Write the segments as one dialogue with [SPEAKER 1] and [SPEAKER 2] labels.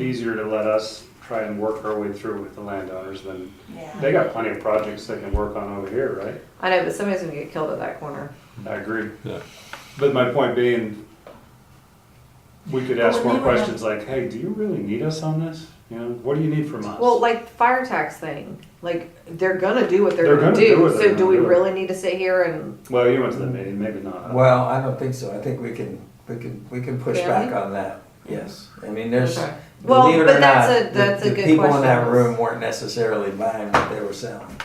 [SPEAKER 1] easier to let us try and work our way through with the landowners than,
[SPEAKER 2] Yeah.
[SPEAKER 1] they got plenty of projects they can work on over here, right?
[SPEAKER 3] I know, but somebody's gonna get killed at that corner.
[SPEAKER 1] I agree.
[SPEAKER 4] Yeah.
[SPEAKER 1] But my point being, we could ask more
[SPEAKER 2] Well, we were-
[SPEAKER 1] questions like, hey, do you really need us on this? You know, what do you need from us?
[SPEAKER 3] Well, like the fire tax thing, like they're gonna do what they're,
[SPEAKER 1] They're
[SPEAKER 3] gonna,
[SPEAKER 1] gonna
[SPEAKER 3] do.
[SPEAKER 1] do what they're
[SPEAKER 3] so do
[SPEAKER 1] gonna
[SPEAKER 3] we
[SPEAKER 1] do.
[SPEAKER 3] really need to sit here and
[SPEAKER 1] Well, you went to the meeting, maybe not.
[SPEAKER 5] Well, I don't think so. I think we can, we can, we can push back
[SPEAKER 3] Uh, Really?
[SPEAKER 5] on that. Yes. I mean, there's,
[SPEAKER 3] Okay. Well,
[SPEAKER 5] believe it
[SPEAKER 3] but
[SPEAKER 5] or
[SPEAKER 3] that's a-
[SPEAKER 5] not,
[SPEAKER 3] that's a
[SPEAKER 5] the, the
[SPEAKER 3] good
[SPEAKER 5] people in that
[SPEAKER 3] question.
[SPEAKER 5] room weren't necessarily buying what they were selling.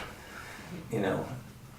[SPEAKER 5] You know,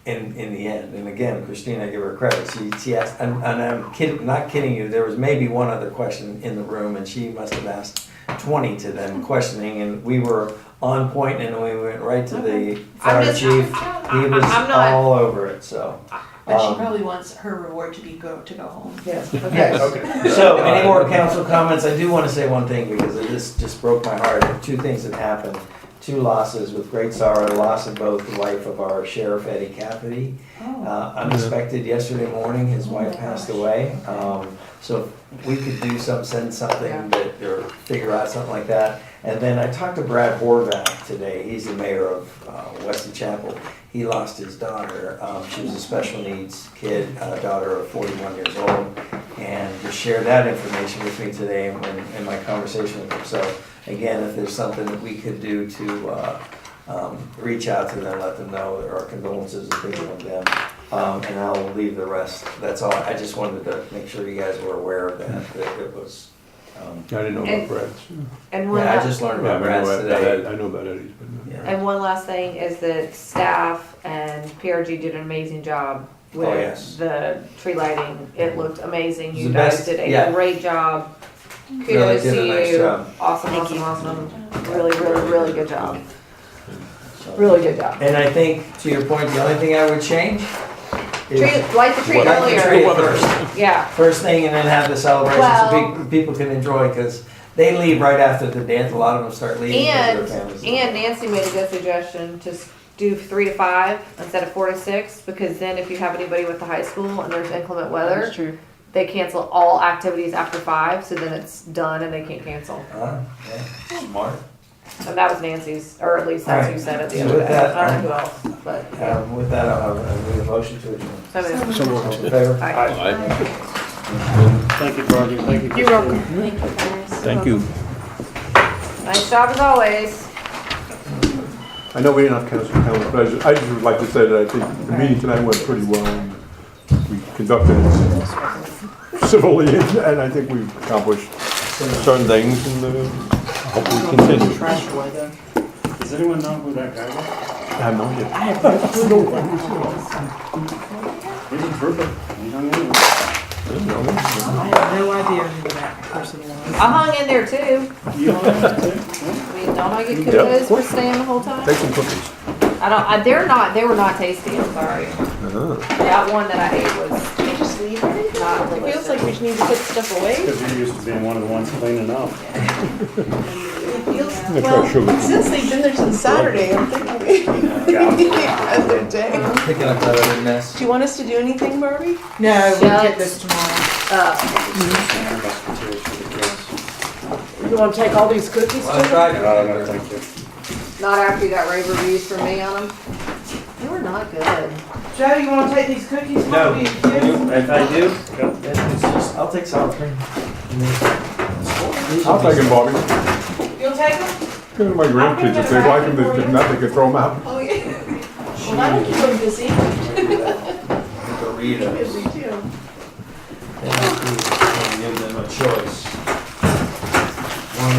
[SPEAKER 5] in, in the end. And again, Christina, I give her credit. She, she asked, and, and I'm kidding, not kidding you, there was maybe one other question in the room and she must have asked twenty to them questioning and we were on point and we went right to the
[SPEAKER 3] I'm
[SPEAKER 5] fire
[SPEAKER 3] just-
[SPEAKER 5] chief. He was
[SPEAKER 3] I- I'm not-
[SPEAKER 5] all over it, so.
[SPEAKER 2] But she
[SPEAKER 5] Um,
[SPEAKER 2] probably wants her reward to be go, to go home.
[SPEAKER 5] Yes.
[SPEAKER 3] okay.
[SPEAKER 1] Okay.
[SPEAKER 5] So, any more council comments? I do want to say one thing because this just broke my heart. Two things that happened, two losses with great sorrow, the loss of both the life of our sheriff Eddie Cafferty.
[SPEAKER 2] Oh,
[SPEAKER 5] Uh, unexpected yesterday morning, his wife passed away. Um, so if we could do some, send
[SPEAKER 3] Yeah.
[SPEAKER 5] something that, or figure out something like that. And then I talked to Brad Horvath today. He's the mayor of, uh, Weston Chapel. He lost his daughter. Um, she was a special needs kid, a daughter of forty-one years old. And he shared that information with me today in, in my conversation with him. So again, if there's something that we could do to, uh, um, reach out to them, let them know that our condolences are big on them. Um, and I'll leave the rest. That's all. I just wanted to make sure you guys were aware of that, that it was, um,
[SPEAKER 4] I didn't know
[SPEAKER 3] And-
[SPEAKER 4] about Brad's.
[SPEAKER 3] And one
[SPEAKER 5] yeah, I
[SPEAKER 3] last,
[SPEAKER 5] just learned
[SPEAKER 4] Yeah,
[SPEAKER 5] about
[SPEAKER 4] I know
[SPEAKER 5] rats
[SPEAKER 4] about-
[SPEAKER 5] today.
[SPEAKER 4] I know about Eddie's, but not
[SPEAKER 5] Yeah.
[SPEAKER 3] and one last thing is that staff and PRG did an amazing job with
[SPEAKER 5] Oh, yes.
[SPEAKER 3] the tree lighting. It looked amazing.
[SPEAKER 5] It's
[SPEAKER 3] You
[SPEAKER 5] the
[SPEAKER 3] guys
[SPEAKER 5] best-
[SPEAKER 3] did a
[SPEAKER 5] yeah.
[SPEAKER 3] great job. Kudos
[SPEAKER 5] Really did
[SPEAKER 3] to
[SPEAKER 5] a nice
[SPEAKER 3] you.
[SPEAKER 5] job.
[SPEAKER 3] Awesome, awesome, awesome. Really, really, really good job.
[SPEAKER 5] So-
[SPEAKER 3] Really good job.
[SPEAKER 5] And I think, to your point, the only thing I would change
[SPEAKER 3] Tree,
[SPEAKER 5] is
[SPEAKER 3] light the tree
[SPEAKER 5] light the
[SPEAKER 3] earlier.
[SPEAKER 5] tree first.
[SPEAKER 3] Yeah.
[SPEAKER 5] First thing, and then have the celebration so
[SPEAKER 3] Well-
[SPEAKER 5] pe- people can enjoy because they leave right after the dance. A lot of them start leaving. 'cause
[SPEAKER 3] And,
[SPEAKER 5] their families-
[SPEAKER 3] and Nancy made a good suggestion to s- do three to five instead of four to six, because then if you have anybody with the high school and there's inclement weather,
[SPEAKER 6] true.
[SPEAKER 3] they cancel all activities after five, so then it's done and they can't cancel.
[SPEAKER 5] Huh? Yeah. Smart.
[SPEAKER 3] And that was Nancy's, or at least that's who said it the
[SPEAKER 5] Alright.
[SPEAKER 3] other
[SPEAKER 5] With
[SPEAKER 3] day.
[SPEAKER 5] that,
[SPEAKER 3] I don't know who else, but, yeah.
[SPEAKER 5] Um, with that, I'll have I'll need a motion to adjourn.
[SPEAKER 3] So I mean,
[SPEAKER 5] All in favor?
[SPEAKER 3] I-
[SPEAKER 1] Aye.
[SPEAKER 4] Aye.
[SPEAKER 1] Thank you, Roger. Thank you.
[SPEAKER 6] You're welcome.
[SPEAKER 2] Thank you guys.
[SPEAKER 4] Thank you.
[SPEAKER 3] Nice job as always.
[SPEAKER 4] I know we didn't have council comments, but I just, I just would like to say that I think the meeting tonight went pretty well. and We conducted it civilly, and and I think we've accomplished certain things, and uh, hopefully continue.
[SPEAKER 1] Does anyone know who that guy was?
[SPEAKER 4] I have no idea.
[SPEAKER 1] He's a trooper. He hung in there.
[SPEAKER 4] I don't know.
[SPEAKER 6] I have no idea who that person was.
[SPEAKER 3] I hung in there too.
[SPEAKER 1] You hung in there too? Yeah.
[SPEAKER 3] I mean, don't I get
[SPEAKER 4] Yeah, of
[SPEAKER 3] kudos for
[SPEAKER 4] course.
[SPEAKER 3] staying the whole time?
[SPEAKER 4] Take some cookies.
[SPEAKER 3] I don't, I, they're not, they were not tasty, I'm sorry.
[SPEAKER 4] Ah.
[SPEAKER 3] That one that I ate was
[SPEAKER 6] They just leave everything?
[SPEAKER 3] not
[SPEAKER 6] It feels
[SPEAKER 3] delicious.
[SPEAKER 6] like we just need to put stuff away.
[SPEAKER 1] Because you used to being one of the ones cleaning up.
[SPEAKER 6] It feels,
[SPEAKER 4] I'm gonna try
[SPEAKER 6] well,
[SPEAKER 4] sugar.
[SPEAKER 6] since they've been there since Saturday, I'm thinking we need the other day.
[SPEAKER 5] Picking up that other mess.
[SPEAKER 6] Do you want us to do anything, Barbie?
[SPEAKER 3] No, we'll get this tomorrow.
[SPEAKER 6] You want to take all these cookies?
[SPEAKER 5] Well, I tried.
[SPEAKER 1] Uh, no, thank you.
[SPEAKER 3] Not after you got rave reviews from me on them. They were not good.
[SPEAKER 6] Joe, you want to take these cookies?
[SPEAKER 5] No.
[SPEAKER 6] Barbie, too?
[SPEAKER 5] If I do,
[SPEAKER 1] Yep.
[SPEAKER 5] then it's just, I'll take some.
[SPEAKER 4] I'll take them, Bobby.
[SPEAKER 6] You'll take them?
[SPEAKER 4] Give them to my grandkids, if they like them, they- if not, they can throw them out.
[SPEAKER 6] Oh, yeah. Well, that'll keep them busy.
[SPEAKER 5] Doritos.
[SPEAKER 6] Busy too.
[SPEAKER 5] And give them a choice. One.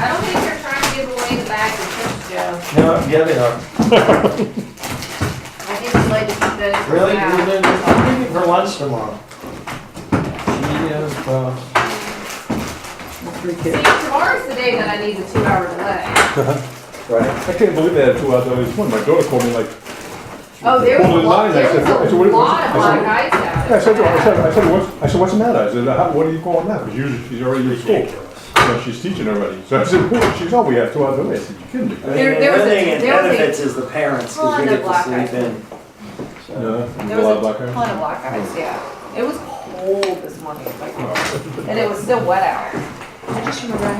[SPEAKER 3] I don't think they're trying to give away the bag of chips, Joe.
[SPEAKER 5] No, yeah, they are.
[SPEAKER 3] I think we'd like to keep those. for
[SPEAKER 5] Really?
[SPEAKER 3] now.
[SPEAKER 5] You're doing this- I'm leaving for lunch tomorrow. uh, Cheetos, bro.
[SPEAKER 3] See, tomorrow's the day that I need the two hour delay.
[SPEAKER 5] Right.
[SPEAKER 4] I can't believe they had two out there. This one, my daughter called me like,
[SPEAKER 3] Oh, there
[SPEAKER 4] Well,
[SPEAKER 3] was
[SPEAKER 4] in
[SPEAKER 3] a lot,
[SPEAKER 4] mine, I
[SPEAKER 3] there
[SPEAKER 4] said, I
[SPEAKER 3] was a
[SPEAKER 4] said, what-
[SPEAKER 3] lot of
[SPEAKER 4] I said-
[SPEAKER 3] black eyes
[SPEAKER 4] Yeah, I said, to her, I
[SPEAKER 3] out.
[SPEAKER 4] said, I said, what's, I said, what's the matter? I said, how, what do you call that? Because usually she's already in school. You know, she's teaching already. So I said, well, she's, oh, we have two hours away. I said, you kidding me?
[SPEAKER 5] I mean,
[SPEAKER 3] There- there was a-
[SPEAKER 5] The thing it
[SPEAKER 3] there was a-
[SPEAKER 5] benefits is the parents, because
[SPEAKER 3] Well,
[SPEAKER 5] we
[SPEAKER 3] and the
[SPEAKER 5] get to
[SPEAKER 3] black
[SPEAKER 5] sleep
[SPEAKER 3] eyed
[SPEAKER 5] in. So,
[SPEAKER 4] Yeah,
[SPEAKER 3] There
[SPEAKER 4] a lot
[SPEAKER 3] was
[SPEAKER 4] of
[SPEAKER 3] a
[SPEAKER 4] black hair.
[SPEAKER 3] ton of black eyes, yeah. It was cold this morning, like, and it was still wet out.
[SPEAKER 2] I just remember I